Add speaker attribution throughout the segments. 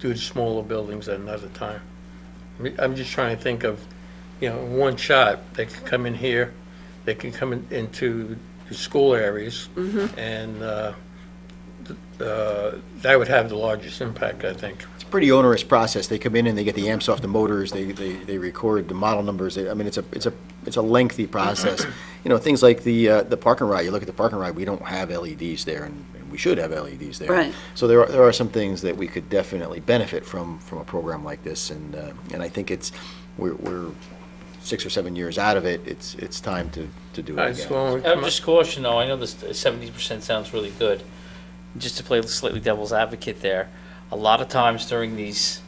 Speaker 1: do the smaller buildings at another time. I mean, I'm just trying to think of, you know, in one shot, they could come in here, they can come in- into the school areas, and uh, th- uh, that would have the largest impact, I think.
Speaker 2: It's a pretty onerous process. They come in and they get the amps off the motors, they, they, they record the model numbers. They- I mean, it's a, it's a, it's a lengthy process. You know, things like the, uh, the parking lot, you look at the parking lot, we don't have LEDs there and and we should have LEDs there.
Speaker 3: Right.
Speaker 2: So there are, there are some things that we could definitely benefit from, from a program like this. And, uh, and I think it's, we're, we're six or seven years out of it. It's, it's time to, to do
Speaker 1: I
Speaker 2: it
Speaker 1: just
Speaker 2: again.
Speaker 1: wanna
Speaker 4: I
Speaker 1: come
Speaker 4: would
Speaker 1: up-
Speaker 4: just caution though, I know this seventy percent sounds really good. Just to play slightly devil's advocate there, a lot of times during these,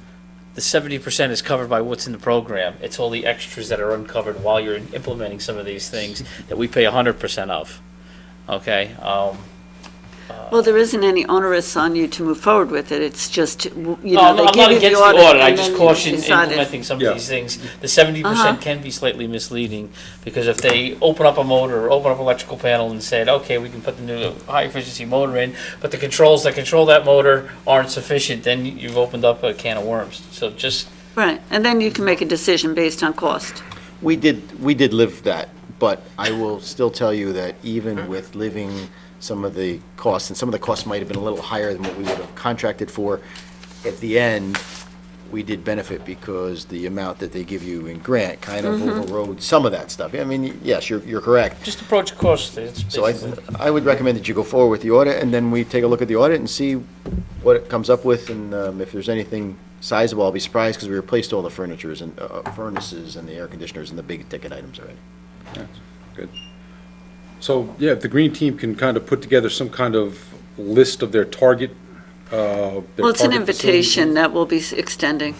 Speaker 4: the seventy percent is covered by what's in the program. It's all the extras that are uncovered while you're implementing some of these things that we pay hundred percent of. Okay, um,
Speaker 3: Well, there isn't any onerous on you to move forward with it, it's just, you
Speaker 4: no,
Speaker 3: know,
Speaker 4: Oh, I'm
Speaker 3: they
Speaker 4: I'm not
Speaker 3: give you
Speaker 4: against
Speaker 3: the
Speaker 4: the
Speaker 3: audit.
Speaker 4: audit, I
Speaker 3: and
Speaker 4: just
Speaker 3: then
Speaker 4: caution
Speaker 3: you decide if-
Speaker 4: implementing some
Speaker 5: Yeah.
Speaker 4: of these things. The seventy
Speaker 3: Uh-huh.
Speaker 4: percent can be slightly misleading, because if they open up a motor, or open up an electrical panel and said, okay, we can put the new high-efficiency motor in, but the controls that control that motor aren't sufficient, then you've opened up a can of worms. So just,
Speaker 3: Right, and then you can make a decision based on cost.
Speaker 2: We did, we did live that, but I will still tell you that even with living some of the costs, and some of the costs might have been a little higher than what we would have contracted for, at the end, we did benefit because the amount that they give you in grant kind of overrode some of that stuff. I mean, yes, you're, you're correct.
Speaker 4: just approach it cautiously, it's
Speaker 2: So I,
Speaker 4: basically.
Speaker 2: I would recommend that you go forward with the audit, and then we take a look at the audit and see what it comes up with, and um, if there's anything sizable, I'll be surprised, because we replaced all the furnitures and uh, furnaces and the air conditioners and the big ticket items already.
Speaker 5: Good. So, yeah, if the green team can kind of put together some kind of list of their target, uh, their
Speaker 3: Well, it's an
Speaker 5: target facilities.
Speaker 3: invitation that we'll be s- extending.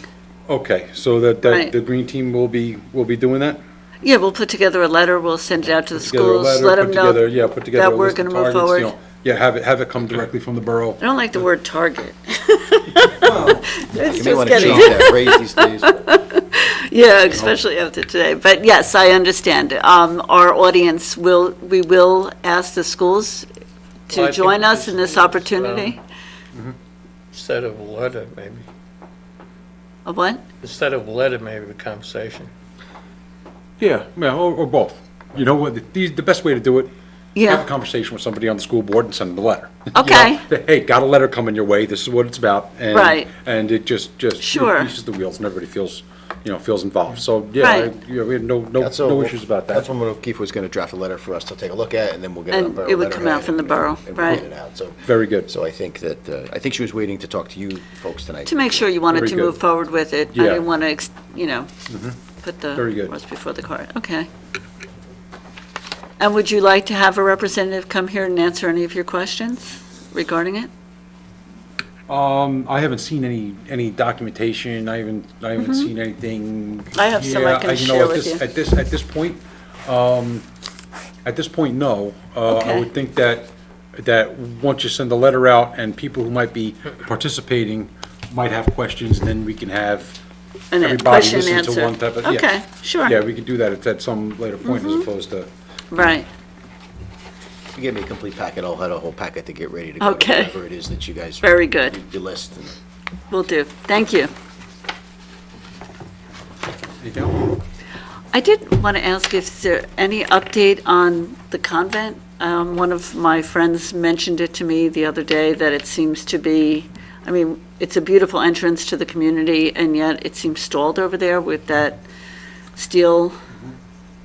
Speaker 5: Okay, so that, that
Speaker 3: Right.
Speaker 5: the green team will be, will be doing that?
Speaker 3: Yeah, we'll put together a letter, we'll send it out to the
Speaker 5: Together a
Speaker 3: schools,
Speaker 5: letter,
Speaker 3: let
Speaker 5: put
Speaker 3: them
Speaker 5: together-
Speaker 3: know.
Speaker 5: Yeah, put together
Speaker 3: that
Speaker 5: a
Speaker 3: we're
Speaker 5: list of
Speaker 3: gonna move
Speaker 5: targets, you
Speaker 3: forward.
Speaker 5: know. Yeah, have it, have it come directly from the borough.
Speaker 3: I don't like the word target. It's
Speaker 2: You may
Speaker 3: just
Speaker 2: want to
Speaker 3: getting,
Speaker 2: change that phrase these days.
Speaker 3: yeah, especially after today. But yes, I understand. Um, Our audience will, we will ask the schools
Speaker 1: Well, I
Speaker 3: to
Speaker 1: think
Speaker 3: join us
Speaker 1: this
Speaker 3: in this
Speaker 1: is, um,
Speaker 3: opportunity.
Speaker 1: Instead of a letter, maybe,
Speaker 3: A what?
Speaker 1: instead of a letter, maybe a conversation.
Speaker 5: Yeah, yeah, or, or both. You know what, the, the best way to do it, have a
Speaker 3: Yeah,
Speaker 5: conversation with somebody on the school board and send them a letter. You know,
Speaker 3: Okay.
Speaker 5: that, Hey, got a letter coming your way, this is what it's about. and-
Speaker 3: Right.
Speaker 5: And it just, just.
Speaker 3: Sure.
Speaker 5: Pieces the wheels and everybody feels, you know, feels involved. So, yeah, I-
Speaker 3: Right.
Speaker 5: yeah, we had no, no,
Speaker 2: That's all-
Speaker 5: no issues about that.
Speaker 2: Councilwoman O'Keefe was going to draft a letter for us to take a look at, and then we'll get it on
Speaker 3: And
Speaker 2: borough
Speaker 3: it would come
Speaker 2: letterhead
Speaker 3: out from the
Speaker 2: and- and
Speaker 3: borough,
Speaker 2: we'll put
Speaker 3: right.
Speaker 2: it out, so-
Speaker 5: Very good.
Speaker 2: So I think that, uh, I think she was waiting to talk to you folks tonight.
Speaker 3: to make sure you wanted
Speaker 5: Very
Speaker 3: to
Speaker 5: good.
Speaker 3: move forward with it. I
Speaker 5: Yeah. Mm-hmm.
Speaker 3: didn't want to, you know, put the
Speaker 5: Very good.
Speaker 3: horse before the cart. Okay. And would you like to have a representative come here and answer any of your questions regarding it?
Speaker 5: Um, I haven't seen any, any documentation, I haven't, I haven't seen anything.
Speaker 3: Mm-hmm. I have some I
Speaker 5: Yeah,
Speaker 3: can
Speaker 5: you know,
Speaker 3: share
Speaker 5: at
Speaker 3: with
Speaker 5: this-
Speaker 3: you.
Speaker 5: At this, at this point, um, at this point, no. Uh, I
Speaker 3: Okay.
Speaker 5: would think that, that once you send the letter out and people who might be participating might have questions, then we can have
Speaker 3: And then
Speaker 5: everybody
Speaker 3: question and
Speaker 5: listen
Speaker 3: answer.
Speaker 5: to one type of, yeah.
Speaker 3: Okay,
Speaker 5: Yeah,
Speaker 3: sure, Mm-hmm.
Speaker 5: we could do that at, at some later point as opposed to,
Speaker 3: right.
Speaker 2: If you give me a complete packet, I'll have a whole packet to get ready to go to
Speaker 3: Okay.
Speaker 2: whatever it is that you guys.
Speaker 3: Very good.
Speaker 2: You list. and-
Speaker 3: Will do. Thank you.
Speaker 5: you know,
Speaker 3: I did want to ask if there any update on the convent. Um, One of my friends mentioned it to me the other day, that it seems to be, I mean, it's a beautiful entrance to the community, and yet it seems stalled over there with that steel.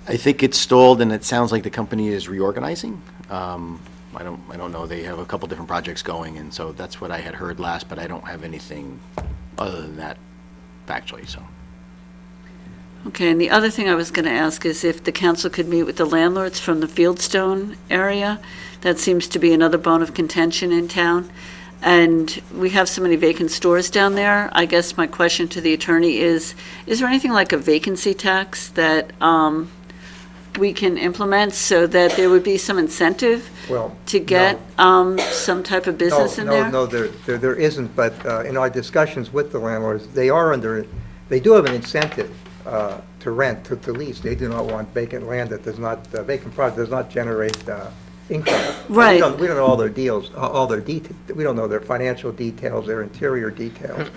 Speaker 2: I think it's stalled, and it sounds like the company is reorganizing. Um, I don't, I don't know, they have a couple different projects going, and so that's what I had heard last, but I don't have anything other than that factually, so.
Speaker 3: Okay, and the other thing I was going to ask is if the council could meet with the landlords from the Fieldstone area. That seems to be another bone of contention in town. And we have so many vacant stores down there. I guess my question to the attorney is, is there anything like a vacancy tax that um, we can implement so that there would be some incentive
Speaker 6: Well,
Speaker 3: to get um, some type of
Speaker 6: no,
Speaker 3: business in
Speaker 6: no,
Speaker 3: there?
Speaker 6: no, there, there there isn't, but uh, in our discussions with the landlords, they are under, they do have an incentive uh, to rent, to to lease. They do not want vacant land that does not, uh, vacant product does not generate uh, income.
Speaker 3: Right.
Speaker 6: We don't, we don't know all their deals, all their details, we don't know their financial details, their interior details.